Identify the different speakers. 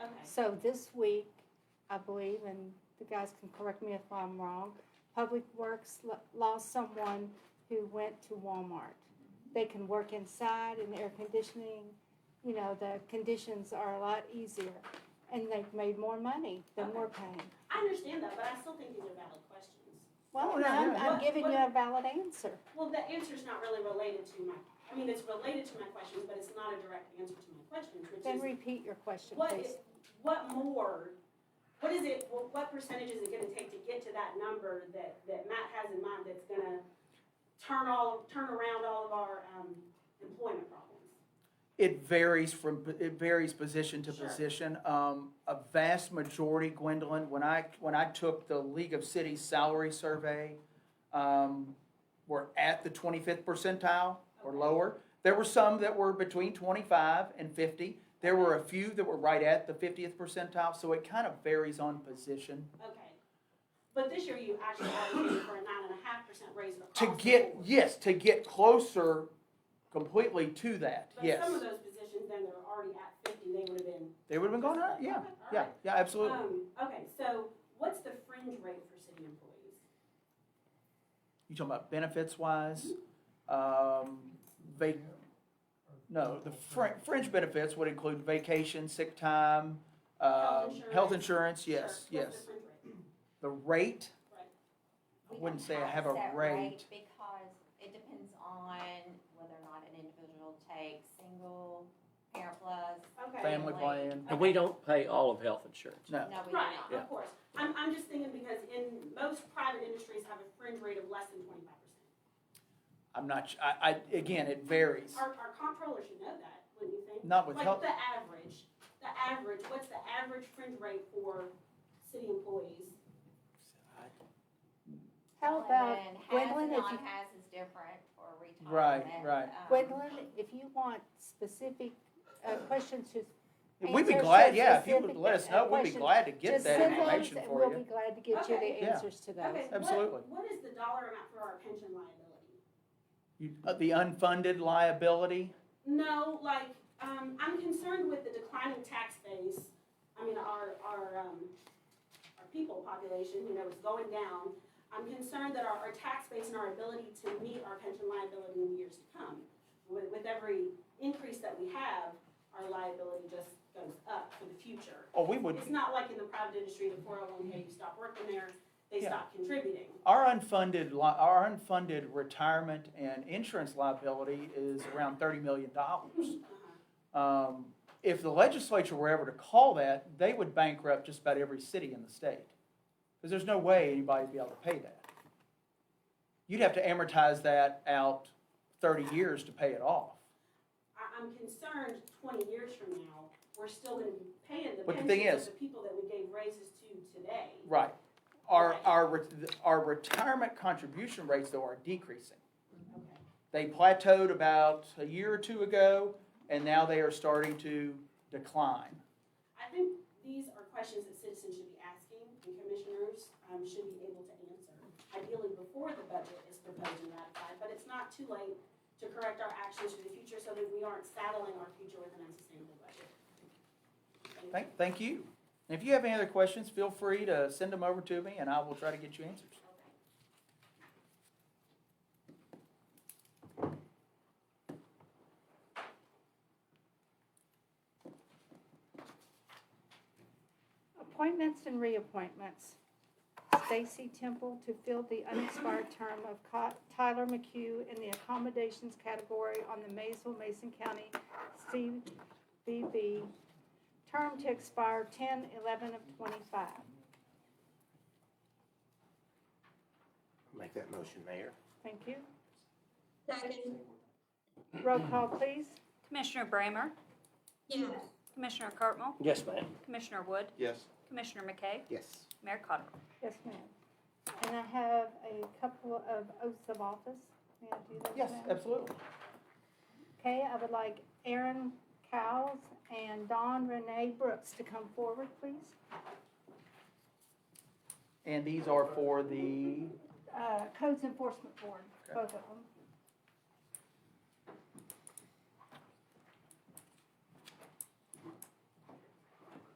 Speaker 1: Okay.
Speaker 2: So this week, I believe, and the guys can correct me if I'm wrong, Public Works lo- lost someone who went to Walmart. They can work inside in air conditioning, you know, the conditions are a lot easier. And they've made more money than we're paying.
Speaker 1: I understand that, but I still think these are valid questions.
Speaker 2: Well,
Speaker 3: Oh, yeah,
Speaker 2: I'm,
Speaker 3: yeah,
Speaker 2: I'm
Speaker 1: yeah.
Speaker 2: giving you a valid answer.
Speaker 1: Well, the answer's not really related to my, I mean, it's related to my questions, but it's not a direct answer to my questions, which
Speaker 2: Then
Speaker 1: is,
Speaker 2: repeat your question,
Speaker 1: what
Speaker 2: please.
Speaker 1: is, what more, what is it, what- what percentage is it gonna take to get to that number that, that Matt has in mind that's gonna turn all, turn around all of our, um, employment problems?
Speaker 3: It varies from, it varies position to
Speaker 1: Sure.
Speaker 3: position. Um, a vast majority, Gwendolyn, when I, when I took the League of Cities salary survey, um, were at the twenty-fifth percentile or
Speaker 1: Okay.
Speaker 3: lower. There were some that were between twenty-five and fifty. There were a few that were right at the fiftieth percentile, so it kind of varies on position.
Speaker 1: Okay. But this year you actually are looking for a nine and a half percent raise across the
Speaker 3: To get,
Speaker 1: board.
Speaker 3: yes, to get closer completely to that,
Speaker 1: But some of
Speaker 3: yes.
Speaker 1: those positions then that are already at fifty, they would have been
Speaker 3: They would have been going, up, yeah,
Speaker 1: Okay, all
Speaker 3: yeah,
Speaker 1: right.
Speaker 3: yeah, absolutely.
Speaker 1: Um, okay, so what's the fringe rate for city employees?
Speaker 3: You talking about benefits wise? Um, vac, no, the fr- fringe benefits would include vacation, sick time, uh,
Speaker 1: Health
Speaker 3: health insurance,
Speaker 1: Sure,
Speaker 3: yes, yes.
Speaker 1: What's the fringe rate?
Speaker 3: The rate,
Speaker 1: Right.
Speaker 3: I wouldn't say I have a
Speaker 4: set
Speaker 3: rate.
Speaker 4: Because it depends on whether or not an individual takes single, parent plus.
Speaker 1: Okay.
Speaker 3: family
Speaker 4: Family.
Speaker 3: plan,
Speaker 5: And we don't pay all of health insurance.
Speaker 3: no.
Speaker 4: No, we do
Speaker 1: Right,
Speaker 4: not.
Speaker 1: of course. I'm, I'm just thinking because in, most private industries have a fringe rate of less than twenty-five percent.
Speaker 3: I'm not, su- I, I, again, it varies.
Speaker 1: Our, our comptroller should know that, wouldn't you think?
Speaker 3: Not with
Speaker 1: Like
Speaker 3: health,
Speaker 1: the average, the average, what's the average fringe rate for city employees?
Speaker 2: How about,
Speaker 4: And has
Speaker 2: Gwendolyn,
Speaker 4: and
Speaker 2: if you-
Speaker 4: non-has is different for
Speaker 3: Right,
Speaker 4: retirement.
Speaker 3: right.
Speaker 4: um,
Speaker 2: Gwendolyn, if you want specific, uh, questions to
Speaker 3: we'd be
Speaker 2: answers
Speaker 3: glad,
Speaker 2: so
Speaker 3: yeah, if you would
Speaker 2: specific
Speaker 3: let us
Speaker 2: and
Speaker 3: know, we'd be
Speaker 2: questions.
Speaker 3: glad to get
Speaker 2: Just
Speaker 3: that
Speaker 2: send
Speaker 3: information
Speaker 2: those, and
Speaker 3: for
Speaker 2: We'll be
Speaker 3: you.
Speaker 2: glad to get you the
Speaker 1: Okay.
Speaker 3: Yeah.
Speaker 2: answers to
Speaker 1: Okay,
Speaker 2: those.
Speaker 1: what-
Speaker 3: Absolutely.
Speaker 1: What is the dollar amount for our pension liability?
Speaker 3: You- uh, The unfunded liability,
Speaker 1: No, like, um, I'm concerned with the declining tax base. I mean, our, our, um, our people population, you know, is going down. I'm concerned that our, our tax base and our ability to meet our pension liability in years to come. With, with every increase that we have, our liability just goes up for the future.
Speaker 3: oh, we would,
Speaker 1: It's not like in the private industry, the four oh one K, you stop working there, they
Speaker 3: Yeah.
Speaker 1: stop contributing.
Speaker 3: Our unfunded, li- our unfunded retirement and insurance liability is around thirty million dollars. Um,
Speaker 1: Uh-huh.
Speaker 3: If the legislature were ever to call that, they would bankrupt just about every city in the state. Because there's no way anybody'd be able to pay that. You'd have to amortize that out thirty years to pay it off.
Speaker 1: I, I'm concerned twenty years from now, we're still gonna be paying the
Speaker 3: But the thing
Speaker 1: pensions
Speaker 3: is-
Speaker 1: of the people that we gave raises to today.
Speaker 3: Right. Our, our, ret- our retirement contribution rates though are decreasing.
Speaker 1: Okay.
Speaker 3: They plateaued about a year or two ago, and now they are starting to decline.
Speaker 1: I think these are questions that citizens should be asking and commissioners, um, should be able to answer. Ideally before the budget is proposed and ratified, but it's not too late to correct our actions for the future so that we aren't saddling our future with an unsustainable budget. Thank you.
Speaker 3: Thank, thank you. And if you have any other questions, feel free to send them over to me and I will try to get you answers.
Speaker 2: Appointments and reappointments. Stacy Temple to fill the unexpired term of Co- Tyler McHugh in the accommodations category on the Maysville Mason County CBB, term to expire 10/11 of '25.
Speaker 6: Make that motion, Mayor.
Speaker 2: Thank you.
Speaker 7: Second,
Speaker 2: Roll call, please.
Speaker 8: Commissioner Brammer?
Speaker 7: yes.
Speaker 8: Commissioner Cartwell?
Speaker 5: Yes, ma'am.
Speaker 8: Commissioner Wood?
Speaker 6: Yes.
Speaker 8: Commissioner McKay?
Speaker 6: Yes.
Speaker 8: Mayor Cotter?
Speaker 2: Yes, ma'am. And I have a couple of oaths of office. May I do those,
Speaker 3: Yes,
Speaker 2: ma'am?
Speaker 3: absolutely.
Speaker 2: Okay, I would like Aaron Cowles and Dawn Renee Brooks to come forward, please.
Speaker 3: And these are for the,
Speaker 2: Uh, Codes Enforcement Board,
Speaker 3: Okay.
Speaker 2: both of them.